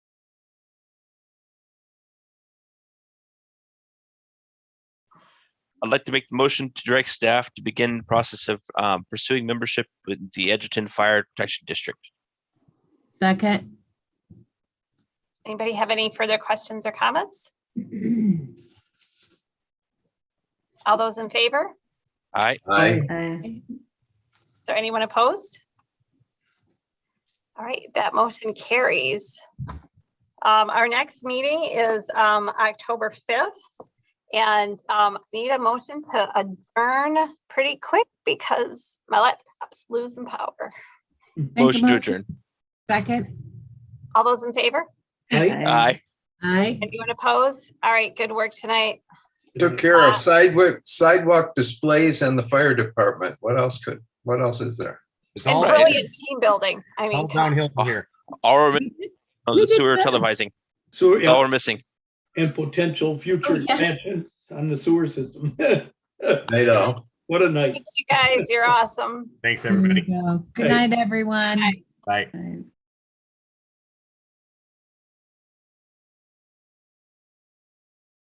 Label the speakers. Speaker 1: I'd like to make the motion to direct staff to begin the process of um, pursuing membership with the Edgerton Fire Protection District.
Speaker 2: Second.
Speaker 3: Anybody have any further questions or comments? All those in favor? Is
Speaker 1: Aye.
Speaker 4: Aye.
Speaker 2: Aye.
Speaker 3: there anyone opposed? All right, that motion carries. Um, Our next meeting is um, October 5th. And um, need a motion to adjourn pretty quick because my laptop's losing power.
Speaker 2: Make a
Speaker 1: Motion to
Speaker 2: motion.
Speaker 1: adjourn.
Speaker 2: Second.
Speaker 3: All those in favor?
Speaker 4: Aye.
Speaker 1: Aye.
Speaker 2: Aye.
Speaker 3: Anyone opposed? All right, good work tonight.
Speaker 4: Took care of sidewalk, sidewalk displays and the fire department. What else could, what else is there?
Speaker 5: It's
Speaker 3: And
Speaker 5: all,
Speaker 1: right.
Speaker 3: brilliant team building. I
Speaker 5: it's all
Speaker 3: mean, come on.
Speaker 5: downhill from here.
Speaker 1: All we're, mi- oh,
Speaker 2: you
Speaker 1: the
Speaker 2: did
Speaker 1: sewer
Speaker 2: good.
Speaker 1: televising.
Speaker 6: sewer
Speaker 1: That's all we're missing.
Speaker 6: and potential
Speaker 2: Oh,
Speaker 6: future
Speaker 2: yeah.
Speaker 6: expansion on the sewer system.
Speaker 4: I know.
Speaker 6: What a night.
Speaker 3: Thanks, you guys. You're awesome.
Speaker 5: Thanks,
Speaker 2: There we
Speaker 5: everybody.
Speaker 2: go. Good
Speaker 6: Aye.
Speaker 2: night, everyone.
Speaker 3: Aye.
Speaker 5: Bye.
Speaker 2: Aye.